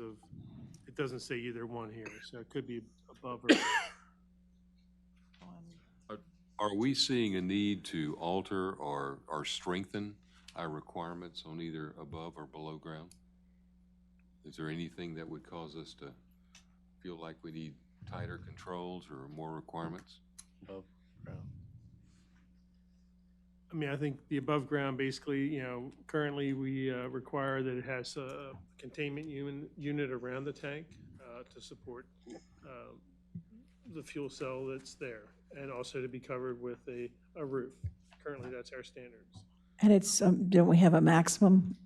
of, it doesn't say either one here, so it could be above or. Are we seeing a need to alter or, or strengthen our requirements on either above or below ground? Is there anything that would cause us to feel like we need tighter controls or more requirements? I mean, I think the above ground, basically, you know, currently we uh, require that it has a containment un- unit around the tank uh, to support uh, the fuel cell that's there, and also to be covered with a, a roof. Currently, that's our standards. And it's, um, don't we have a maximum?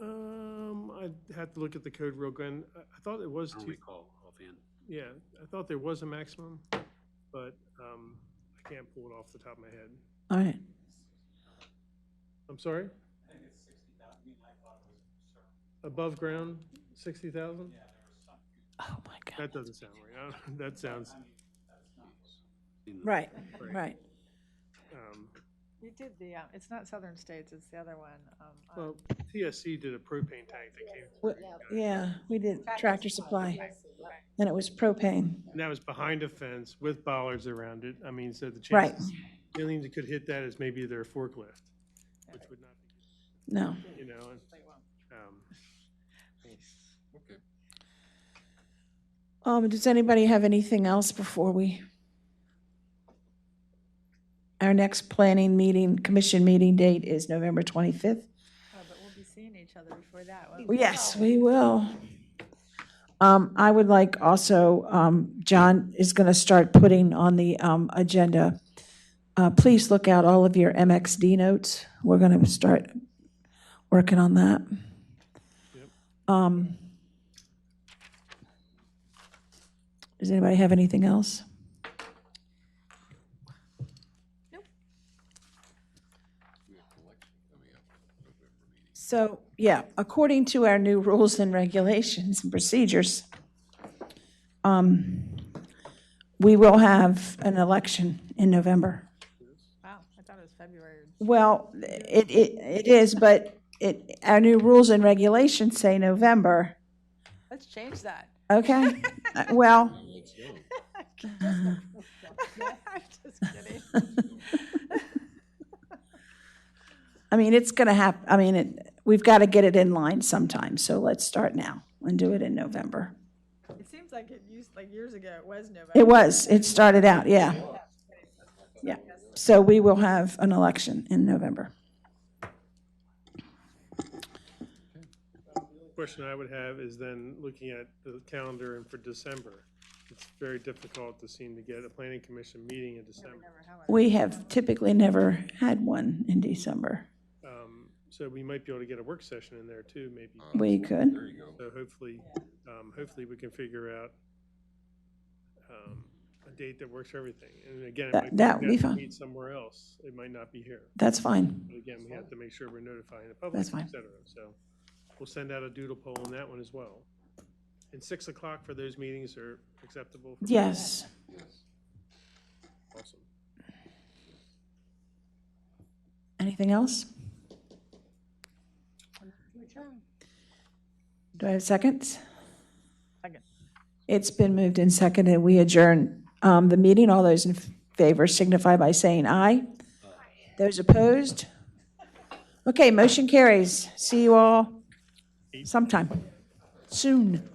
Um, I'd have to look at the code real quick. I I thought it was I don't two, recall offhand. yeah, I thought there was a maximum, but um, I can't pull it off the top of my head. All right. I'm sorry? I think it's sixty thousand, I mean, I thought it was. Above ground, sixty thousand? Oh, my God. That doesn't sound right, I don't- that sounds, Right, right. um, You did the, uh, it's not Southern States, it's the other one. um, on- well, TSC did a propane tank that came, Wh- Yeah, we did tractor supply, and it was propane. and that was behind a fence with bollards around it, I mean, so the Right. chances. Millions could hit that as maybe their forklift, which would not be, No. good, you know, and, They won't. um, Okay. Um, does anybody have anything else before we? Our next planning meeting, commission meeting date is November 25th. Oh, But we'll be seeing each other before that. won't we? Yes, we will. Um, I would like also, um, John is going to start putting on the, um, agenda. Uh, please look out all of your MXD notes. We're going to start working on that. Um, does anybody have anything else? So, yeah, according to our new rules and regulations and procedures, um, we will have an election in November. Wow, I thought it was February. Well, it, it, it is, but it, our new rules and regulations say November, Let's change that. okay? Uh, Well, I'm just kidding. I mean, it's gonna hap, I mean, it, we've gotta get it in line sometime, so let's start now and do it in November. It seems like it used, like years ago, it was November. It was, it started out, yeah. Yeah, so we will have an election in November. Question I would have is then looking at the calendar and for December, it's very difficult to seem to get a planning commission meeting in December. Remember how it- We have typically never had one in December. Um, So we might be able to get a work session in there too, maybe. We could. There you go. So hopefully, um, hopefully we can figure out um, a date that works for everything. And again, it That- might that would we be have to fine. Meet somewhere else. It might not be here. That's fine. But again, we have to make sure we're notifying the public, That's et fine. cetera. So we'll send out a doodle poll on that one as well. And six o'clock for those meetings are acceptable? for- Yes. Yes. Awesome. Anything else? Do I have seconds? Second. It's been moved and seconded. We adjourn um, the meeting. All those in favor signify by saying aye. Those opposed? Okay, motion carries. See you all sometime, soon.